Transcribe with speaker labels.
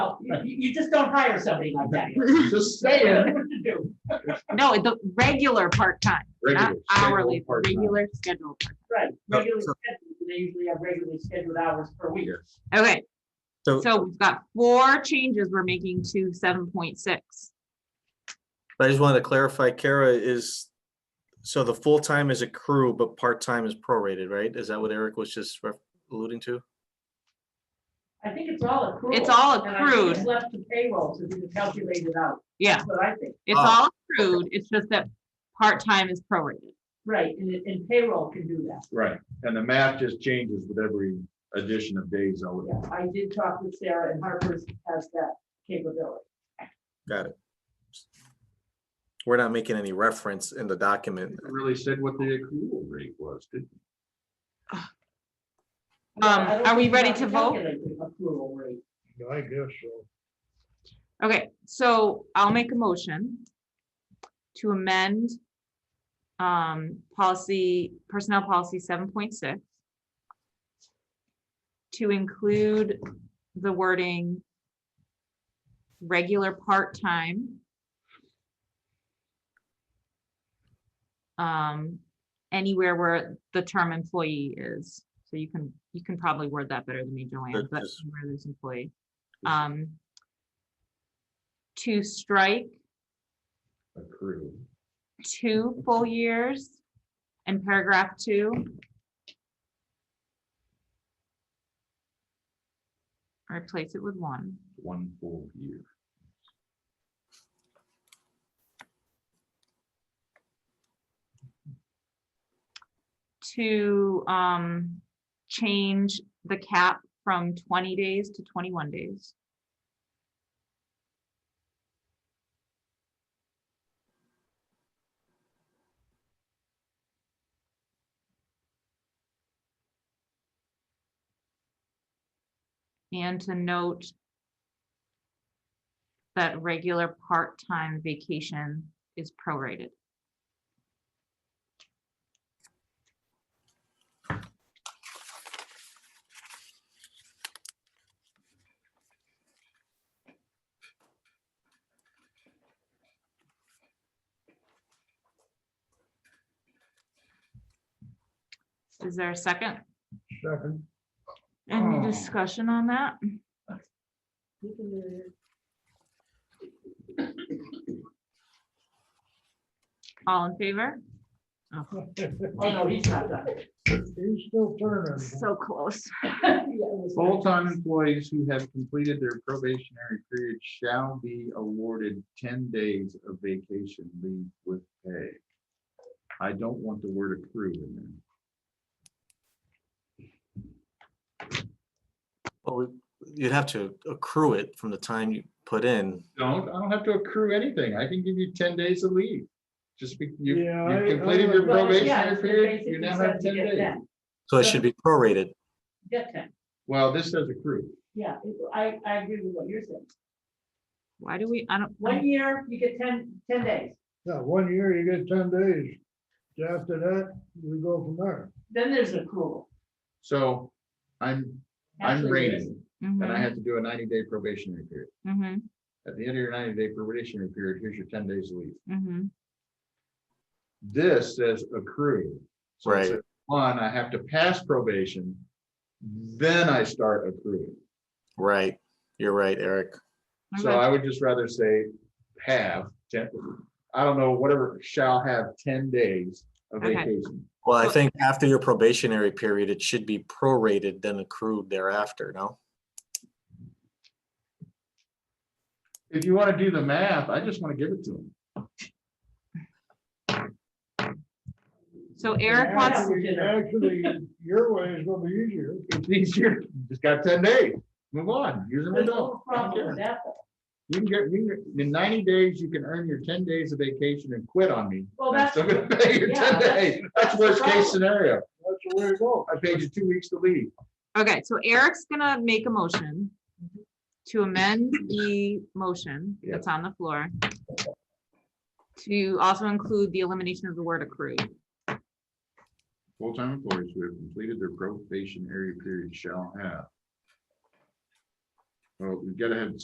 Speaker 1: no, you, you just don't hire somebody like that.
Speaker 2: Just
Speaker 1: They don't know what to do.
Speaker 3: No, the regular part-time, not
Speaker 2: regular,
Speaker 3: hourly,
Speaker 2: scheduled part-time.
Speaker 3: regular scheduled. part-time.
Speaker 1: Right,
Speaker 4: No,
Speaker 1: regularly
Speaker 4: so-
Speaker 1: scheduled, they usually have regularly scheduled hours per week.
Speaker 2: Yeah.
Speaker 3: Okay,
Speaker 4: So
Speaker 3: so we've got four changes we're making to seven point six.
Speaker 4: I just wanted to clarify, Kara is, so the full-time is accrued, but part-time is prorated, right? Is that what Eric was just ref- alluding to?
Speaker 1: I think it's all accrued.
Speaker 3: It's all accrued.
Speaker 1: Left to payroll to do the calculated out,
Speaker 3: Yeah,
Speaker 1: that's what I think,
Speaker 3: it's
Speaker 2: Ah.
Speaker 3: all accrued, it's just that part-time is prorated.
Speaker 1: right, and, it- and payroll can do that.
Speaker 2: Right, and the math just changes with every addition of days, I would.
Speaker 1: Yeah, I did talk with Sarah and Harper's has that capability.
Speaker 4: Got it. We're not making any reference in the document.
Speaker 2: It Really said what the accrual rate was, did
Speaker 3: Um,
Speaker 1: I don't
Speaker 3: are we
Speaker 1: think
Speaker 3: ready
Speaker 1: have
Speaker 3: to vote?
Speaker 1: calculate the Accrual rate.
Speaker 2: I guess so.
Speaker 3: Okay, so I'll make a motion to amend um, policy, personnel policy seven point six to include the wording regular part-time um, anywhere where the term employee is. So you can, you can probably word that better than me, Joanne,
Speaker 4: That
Speaker 3: but
Speaker 4: is-
Speaker 3: where there's employee. Um, to strike
Speaker 2: Accrued.
Speaker 3: two full years in paragraph two. Replace it with one.
Speaker 2: one full year.
Speaker 3: To um, change the cap from twenty days to twenty-one days. And to note that regular part-time vacation is prorated. Is there a second?
Speaker 2: Second.
Speaker 3: Any
Speaker 2: Oh.
Speaker 3: discussion on that?
Speaker 1: You can do it.
Speaker 3: All in favor?
Speaker 1: Oh, no, he's not done.
Speaker 5: He's still turning.
Speaker 2: Mm-hmm.
Speaker 3: So close.
Speaker 1: Yeah, it was-
Speaker 2: Full-time employees who have completed their probationary period shall be awarded ten days of vacation leave with pay. I don't want the word accrued in there.
Speaker 4: Well, we- You'd have to accrue it from the time you put in.
Speaker 2: Don't, I don't have to accrue anything. I can give you ten days of leave. Just be, you,
Speaker 5: Yeah,
Speaker 2: you
Speaker 5: I-
Speaker 2: completed
Speaker 5: I-
Speaker 2: your
Speaker 1: Well, yeah,
Speaker 2: probationary
Speaker 1: it
Speaker 2: period,
Speaker 1: basically
Speaker 2: you now
Speaker 1: says
Speaker 2: have
Speaker 1: you
Speaker 2: ten
Speaker 1: get
Speaker 2: days.
Speaker 1: that.
Speaker 4: So it should be prorated.
Speaker 1: Get that.
Speaker 2: Well, this says accrue.
Speaker 1: Yeah, it- I, I agree with what you're saying.
Speaker 3: Why do we, I don't,
Speaker 1: One year, you get 10 10 days.
Speaker 5: Yeah, one year you get ten days. After that, we go from there.
Speaker 1: Then there's accrual.
Speaker 2: So I'm, I'm
Speaker 1: Actually, there
Speaker 2: rated
Speaker 1: is.
Speaker 2: and I
Speaker 3: mhm,
Speaker 2: have to do a ninety-day probationary period.
Speaker 3: mhm,
Speaker 2: At the end of your ninety-day probationary period, here's your ten days of leave.
Speaker 3: mhm.
Speaker 2: This says accrue. So it
Speaker 4: Right.
Speaker 2: says, One, I have to pass probation, then I start accruing.
Speaker 4: Right. You're right, Eric.
Speaker 2: So
Speaker 3: Okay.
Speaker 2: I would just rather say have, ten, I don't know, whatever, shall have ten days of
Speaker 3: Okay.
Speaker 2: vacation.
Speaker 4: Well, I
Speaker 3: Well-
Speaker 4: think after your probationary period, it should be prorated then accrued thereafter, no?
Speaker 2: If you want to do the math, I just want to give it to them.
Speaker 3: So Eric wants,
Speaker 5: Actually, actually, your way is gonna be easier.
Speaker 2: It's easier, just got ten days, move on, use them or
Speaker 1: There's
Speaker 2: don't.
Speaker 1: no
Speaker 2: I
Speaker 1: problem
Speaker 2: don't care.
Speaker 1: with that. though.
Speaker 2: You can get, you can, get- in ninety days, you can earn your ten days of vacation and quit on me.
Speaker 1: Well,
Speaker 2: I'm
Speaker 1: that's-
Speaker 2: still gonna pay your
Speaker 1: yeah,
Speaker 2: ten days. That's worst
Speaker 1: problem.
Speaker 2: case scenario.
Speaker 5: That's the way it goes.
Speaker 2: I paid you two weeks to leave.
Speaker 3: okay, so Eric's gonna make a motion to amend the motion
Speaker 2: Yeah.
Speaker 3: that's on the floor to also include the elimination of the word accrued.
Speaker 2: Full-time employees who have completed their probationary period shall have. Well, we gotta have